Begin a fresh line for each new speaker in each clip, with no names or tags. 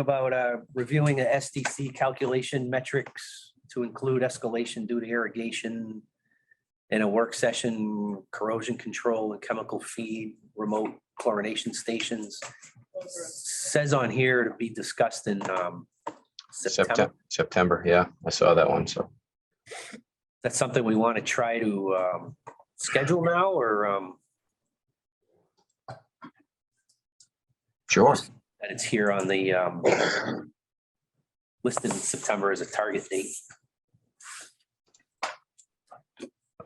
about uh, reviewing the SDC calculation metrics to include escalation due to irrigation in a work session, corrosion control and chemical feed, remote chlorination stations. Says on here to be discussed in um, September.
September, September, yeah, I saw that one, so.
That's something we want to try to um, schedule now or um,
Sure,
that it's here on the um, listed in September as a target date.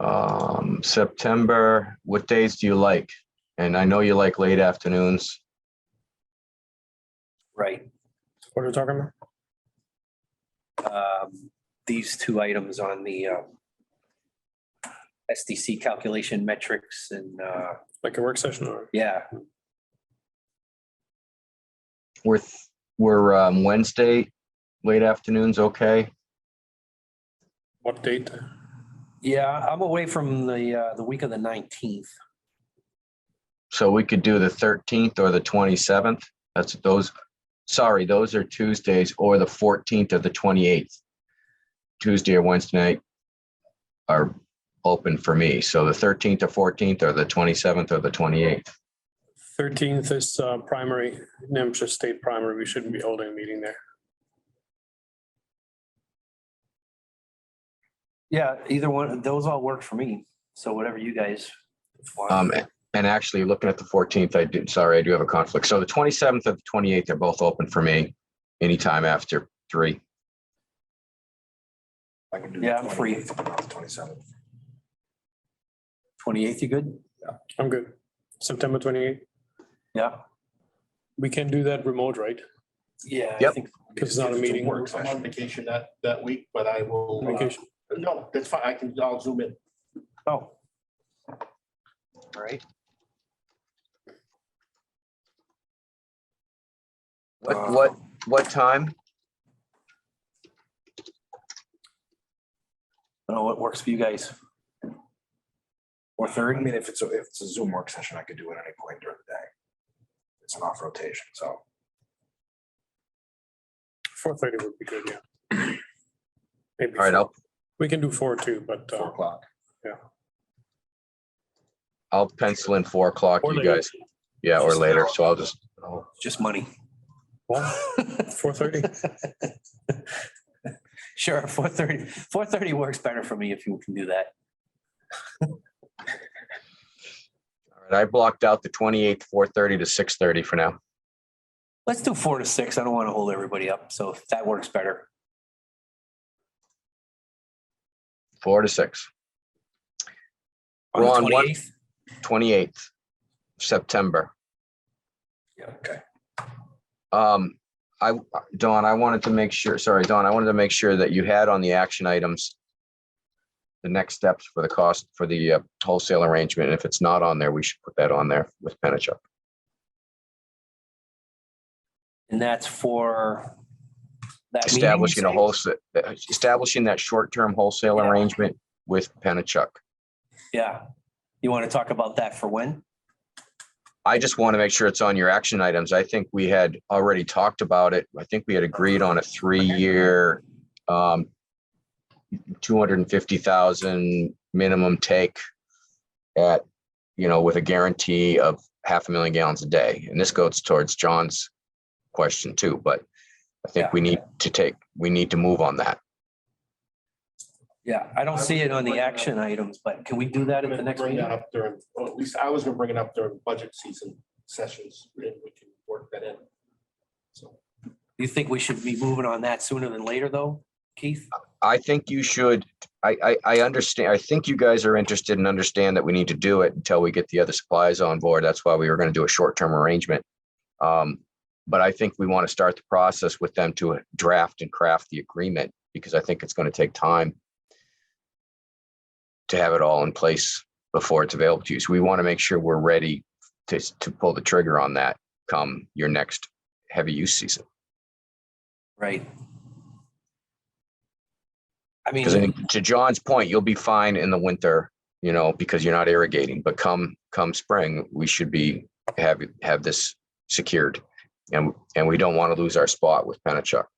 um, September, what days do you like? And I know you like late afternoons,
Right.
What are we talking about?
um, these two items on the um, SDC calculation metrics and, uh,
Like a work session or?
yeah,
we're, th- we're, um, Wednesday, late afternoons, okay?
What date?
yeah, I'm away from the, uh, the week of the 19th.
So we could do the thirteenth or the twenty-seventh, that's those, sorry, those are Tuesdays or the fourteenth or the twenty-eighth. Tuesday or Wednesday night are open for me, so the thirteenth or fourteenth or the twenty-seventh or the twenty-eighth.
Thirteenth is uh, primary, Hampshire State primary. We shouldn't be holding a meeting there.
Yeah, either one, those all work for me. So whatever you guys. want.
Um, and actually, looking at the fourteenth, I do, sorry, I do have a conflict. So the twenty-seventh and the twenty-eighth are both open for me anytime after three.
I can do.
Yeah, I'm free.
Twenty-seven.
28th, you good?
I'm good. September twenty-eighth.
Yeah.
We can do that remote, right?
Yeah.
Yep.
Because it's not a meeting.
Work session.
I'm on vacation that, that week, but I will. uh,
Vacation.
No, that's fine. I can, I'll zoom in.
Oh. All Oh. right. Uh,
What,
Um,
what, what time?
I don't know what works for you guys. Or
I
third,
mean, if it's, a if it's a Zoom work session, I could do it at any point during the day. It's an off rotation, so.
Four thirty would be good, yeah. Maybe.
All right,
four.
I'll,
We can do four too, but uh,
Four o'clock.
I'll pencil in four o'clock,
Or
you
later.
guys. Yeah, or later, so I'll just, I'll-
just money.
four thirty,
Sure, four thirty. Four thirty works better for me if you can do that.
all right, I blocked out the twenty-eighth, four thirty to six thirty for now.
Let's do four to six. I don't want to hold everybody up, so if that works better.
Four to six.
On the
Ron, what-
28th?
Twenty-eighth, September.
Yeah, okay.
Um, I, Dawn, I wanted to make sure, sorry, Dawn, I wanted to make sure that you had on the action items the next steps for the cost for the uh, wholesale arrangement. And if it's not on there, we should put that on there with Penachuk.
And that's for that meeting, you
Establishing a
say?
wholesale, establishing that short-term wholesale
Yeah.
arrangement with Penachuk.
Yeah. You want to talk about that for when?
I just want to make sure it's on your action items. I think we had already talked about it. I think we had agreed on a three-year um two hundred and fifty thousand minimum take at, you know, with a guarantee of half a million gallons a day. And this goes towards John's question too, but I
Yeah.
think we need to take, we need to move on that.
Yeah, I don't see it on the action items, but can we do that
I'm
at the
gonna
next
bring that
meeting?
up during, or at least I was gonna bring it up during budget season sessions, and we can work that in. So,
You think we should be moving on that sooner than later, though, Keith?
I think you should, I, I, I understand, I think you guys are interested and understand that we need to do it until we get the other supplies on board. That's why we were gonna do a short-term arrangement. Um, but I think we want to start the process with them to draft and craft the agreement, because I think it's gonna take time to have it all in place before it's available to you. So we want to make sure we're ready to, to pull the trigger on that come your next heavy use season.
Right. I mean,
Because I think to John's point, you'll be fine in the winter, you know, because you're not irrigating, but come, come spring, we should be, have, have this secured And, and we don't want to lose our spot with Penachuk.